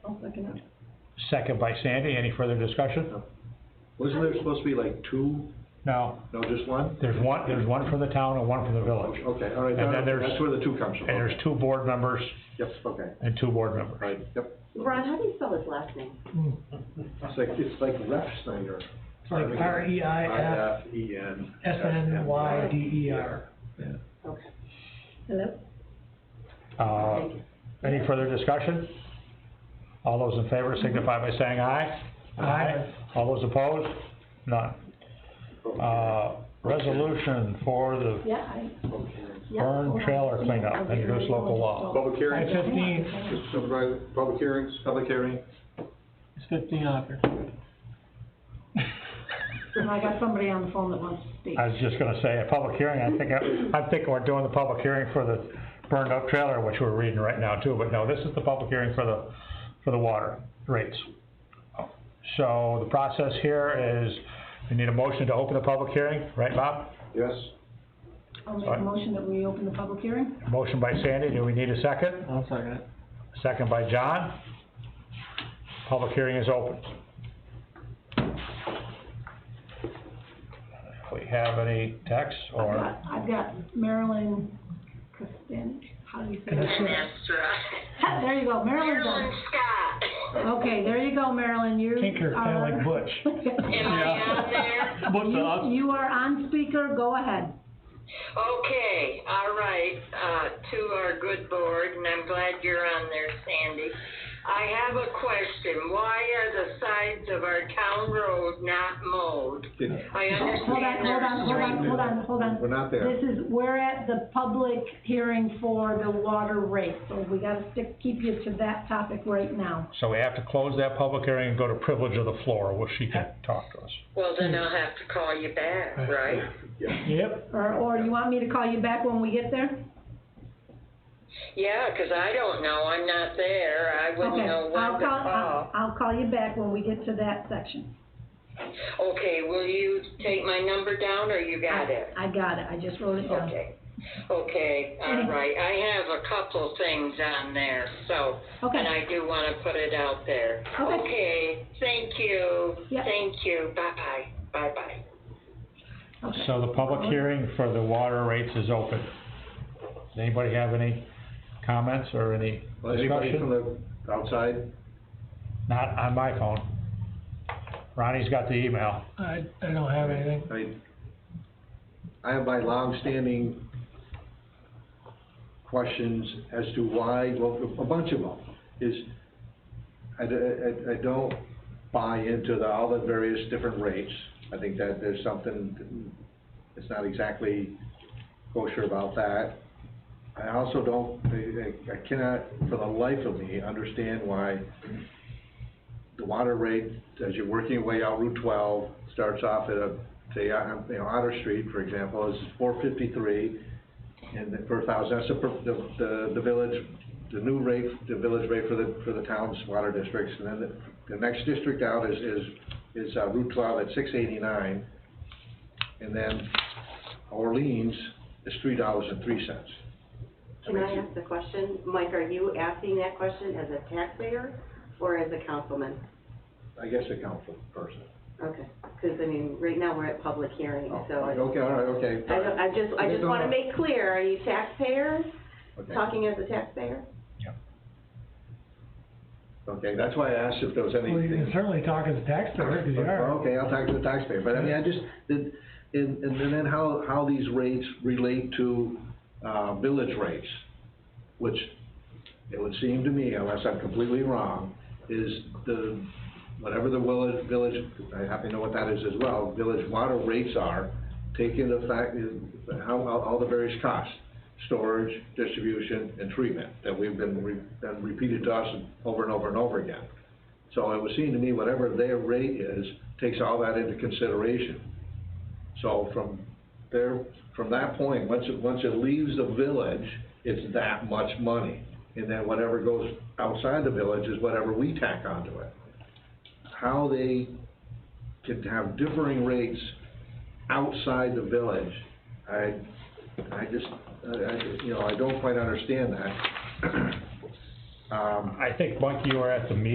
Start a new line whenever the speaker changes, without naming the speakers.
second it.
Second by Sandy, any further discussion?
Wasn't there supposed to be like two,
No,
no, just one?
there's one, there's one from the town and one from the village.
Okay, all right,
And then there's-
that's where the two comes from.
And there's two board members
Yes, okay,
and two board members.
right, yep.
Ron, how do you spell his last name?
It's like, it's like Ref Snyder.
Like R E I F
I F E N.
S N Y D E R.
Okay.
Hello?
Uh, any further discussion? All those in favor signify by saying aye.
Aye.
All those opposed? None. Uh, resolution for the
Yeah, I, yeah.
burn trailer cleanup, introduce local law.
Public
At
hearing,
fifteen,
Supervisor, public hearings, public hearing.
it's fifteen out there.
And I got somebody on the phone that wants to speak.
I was just gonna say, a public hearing, I think, I think we're doing the public hearing for the burned up trailer, which we're reading right now too, but no, this is the public hearing for the, for the water rates. So the process here is, we need a motion to open the public hearing, right, Bob?
Yes,
I'll make a motion that we open the public hearing.
Motion by Sandy, do we need a second?
I'll second it.
Second by John. Public hearing is open. If we have any texts
I've
or,
got, I've got Marilyn Kostanek, how do you say
Yes,
that?
sir.
That's right.
There you go, Marilyn's
Marilyn
on.
Scott.
Okay, there you go, Marilyn, you are.
Tinker, kinda like Butch.
Am I on there?
You, you are on speaker, go ahead.
Okay, all right, uh, to our good board, and I'm glad you're on there, Sandy. I have a question. Why are the sides of our town road not mowed?
Didn't-
I
Hold on,
understand
hold on, hold on, hold on, hold on.
We're not there.
This is, we're at the public hearing for the water rate, so we gotta stick, keep you to that topic right now.
so we have to close that public hearing and go to privilege of the floor, where she can talk to us.
Well, then I'll have to call you back, right?
Yep,
Or, or you want me to call you back when we get there?
Yeah, 'cause I don't know. I'm not there. I wouldn't
Okay,
know
I'll
when to
call, uh, I'll,
call.
I'll call you back when we get to that section.
Okay, will you take my number down, or you got it?
I got it, I just wrote it down.
Okay, Oh. okay, all right, I have a couple things on there, so,
Okay.
and I do wanna put it out there.
Okay.
Okay, thank you,
Yeah.
thank you, bye-bye, bye-bye.
Okay.
So the public hearing for the water rates is open. Does anybody have any comments or any
Well, Anybody from
discussion?
the outside?
Not on my phone. Ronnie's got the email.
I, I don't have anything.
I mean, I have my longstanding questions as to why, well, a bunch of them, is I, d- I- I don't buy into the, all the various different rates. I think that there's something that's not exactly kosher about that. I also don't, I- I I cannot, for the life of me, understand why the water rate, as you're working your way out Route twelve, starts off at a, say, uh, you know, Otter Street, for example, is four fifty-three and then per thousand, that's the, per- the, the, the village, the new rate, the village rate for the, for the town's water districts. And then the, the next district out is, is, is uh, Route twelve at six eighty-nine. And then Orleans is three dollars and three cents.
Can I ask the question? Mike, are you asking that question as a taxpayer or as a councilman?
I guess the council person.
Okay, because I mean, right now we're at public hearing,
Oh,
so I,
Okay, all right, okay.
I don't- I just, I just
No,
want to
no.
make clear, are you taxpayer,
Okay.
talking as a taxpayer?
Okay, that's why I asked if there was
Well, you
anything.
can certainly talk as a taxpayer, because you are.
Okay, I'll talk to the taxpayer, but I mean, I just, and, and and then how, how these rates relate to, uh, village rates, which it would seem to me, unless I'm completely wrong, is the, whatever the village, village, I happen to know what that is as well, village water rates are, take into fact, how, how, all the various costs, storage, distribution, and treatment, that we've been, re- been repeated to us over and over and over again. So it would seem to me whatever their rate is, takes all that into consideration. So from there, from that point, once it, once it leaves the village, it's that much money. And then whatever goes outside the village is whatever we tack onto it. How they can have differing rates outside the village, I, I just, I, I, you know, I don't quite understand that. Um,
I think, Mike, you were at the meeting